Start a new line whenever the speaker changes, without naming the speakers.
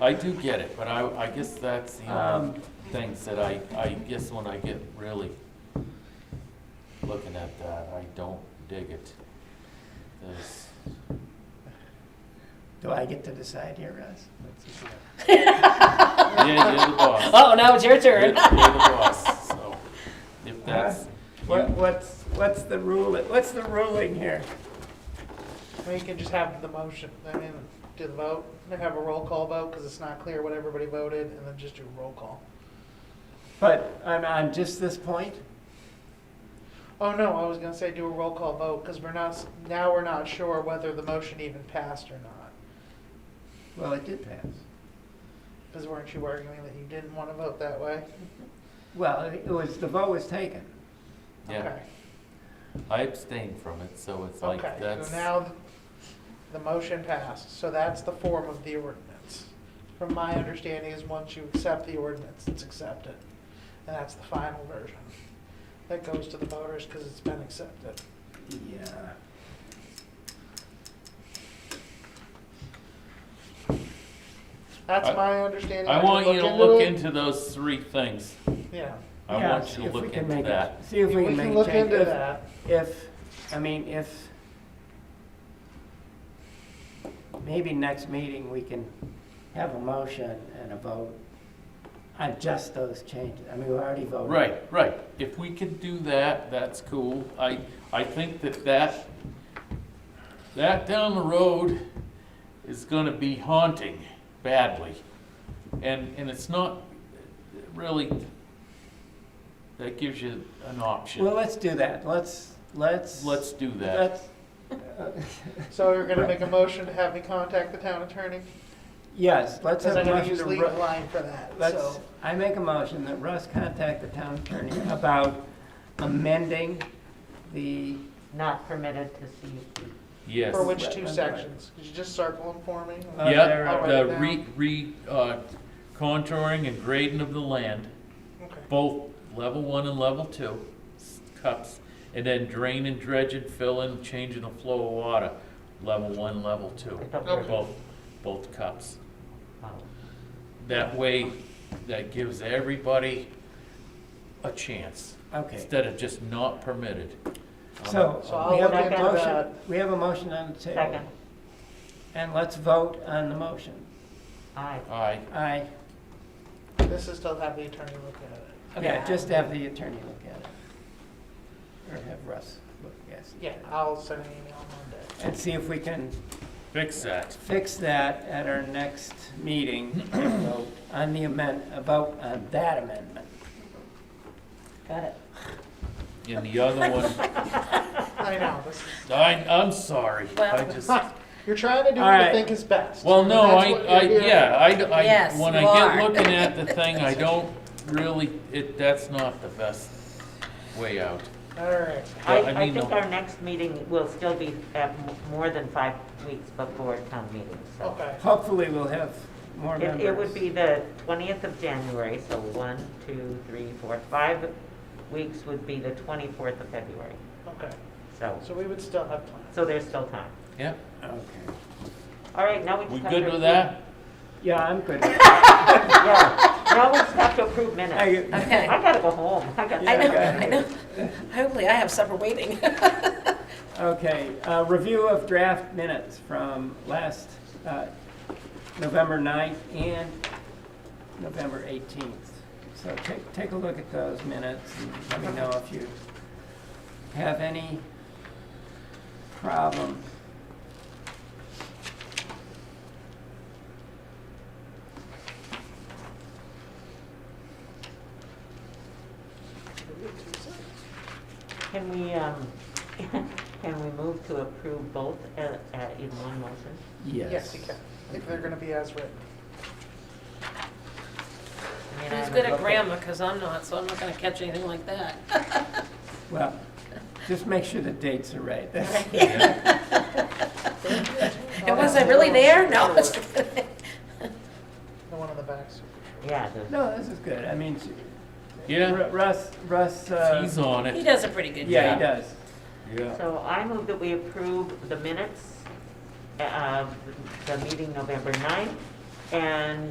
I do get it, but I, I guess that's the
Um,
only things that I, I guess when I get really looking at that, I don't dig it. There's,
Do I get to decide here, Russ?
yeah, you're the boss.
Oh, now it's your
You're you're
turn.
the boss, so if that's,
What, what's, what's the rule, what's the ruling here?
We can just have the motion, I mean, do the vote, and have a roll call vote, because it's not clear what everybody voted, and then just do a roll call.
But on, on just this point?
Oh, no, I was gonna say do a roll call vote, because we're not, s- now we're not sure whether the motion even passed or not.
Well, it did pass.
Because weren't you arguing that you didn't want to vote that way?
Well, it was, the vote was taken.
yeah,
Okay.
I abstain from it, so it's like,
Okay,
that's,
so now th- the motion passed, so that's the form of the ordinance. From my understanding is once you accept the ordinance, it's accepted. And that's the final version. That goes to the voters because it's been accepted.
Yeah.
That's
I-
my understanding.
I
Did
want you to look
it?
into those three things.
Yeah.
I
Yeah,
want you
see
to
if we
look
can
into
make it-
that.
See if we can make changes.
look into that.
If, I mean, if, maybe next meeting, we can have a motion and a vote on just those changes. I mean, we already voted.
Right, right. If we could do that, that's cool. I, I think that that, that down the road is gonna be haunting badly. And, and it's not really, that gives you an
Well,
option.
let's do that. Let's, let's.
Let's do that.
Let's, uh,
So you're gonna make a motion to have me contact the town attorney?
yes, let's
Because
have a
I'm gonna
motion
use
to.
legal
Ru-
line for that,
Let's,
so.
I make a motion that Russ contact the town attorney about amending the,
Not permitted to see.
Yes.
For which two sections? Could you just circle them for me?
Uh, there
Yep,
are-
the re, re, uh, contouring and grading of the land.
Okay.
both level one and level two s- cups, and then drain and dredge and fill in, changing the flow of water, level one, level two, both, both cups. That way, that gives everybody a chance,
okay.
instead of just not permitted. Um,
So,
So I'll
we have
look
a
into
motion,
that.
we have a motion on the table.
Second.
And let's vote on the motion.
Aye.
Aye,
Aye.
This is still have the attorney look at it.
Okay,
Yeah.
just have the attorney look at it. Or have Russ look, yes.
Yeah, I'll send an email Monday.
And see if we can
fix that.
fix that at our next meeting and vote on the amend, about on that amendment.
Got it.
And the other one,
I know, this is,
I, I'm sorry, I
Well-
just,
you're trying to do
All
what you
right.
think is best.
well, no,
That's
I,
what you're
I,
hearing.
yeah, I, I,
Yes,
when I
you
get
are.
looking at the thing, I don't really, it, that's not the best way out.
All right,
I,
I
I
mean,
think
no.
our next meeting will still be at m- more than five weeks before town meeting, so.
okay.
Hopefully, we'll have more
It,
members.
it would be the twentieth of January, so one, two, three, four, five weeks would be the twenty-fourth of February,
Okay,
so,
so we would still have plans.
so there's still time.
Yeah,
Okay.
All right, now we just
we
have to.
good with
approve-
that?
Yeah, I'm good.
Yeah, now we just have to approve minutes.
I-
I
Okay,
gotta go home, I gotta.
I know,
Yeah.
I know. Hopefully I have supper waiting.
Okay, uh, review of draft minutes from last uh, November 9th and November 18th. So take, take a look at those minutes and let me know if you have any problems.
Can we, um, can we move to approve both uh, uh, in one motion?
Yes, you can, if they're gonna be as written.
I mean, I
Who's
haven't
good at
looked
grammar, because I'm not, so I'm not gonna catch anything like that.
Well, just make sure the dates are right.
And was I really there? No.
The one on the back. so-
Yeah, the-
No, this is good. I mean, she-
Yeah,
Ru- Russ, Russ, uh,
he's on
He
it.
does a pretty good
yeah,
job.
he does.
Yeah.
so I move that we uh, approve the minutes of the meeting November 9th and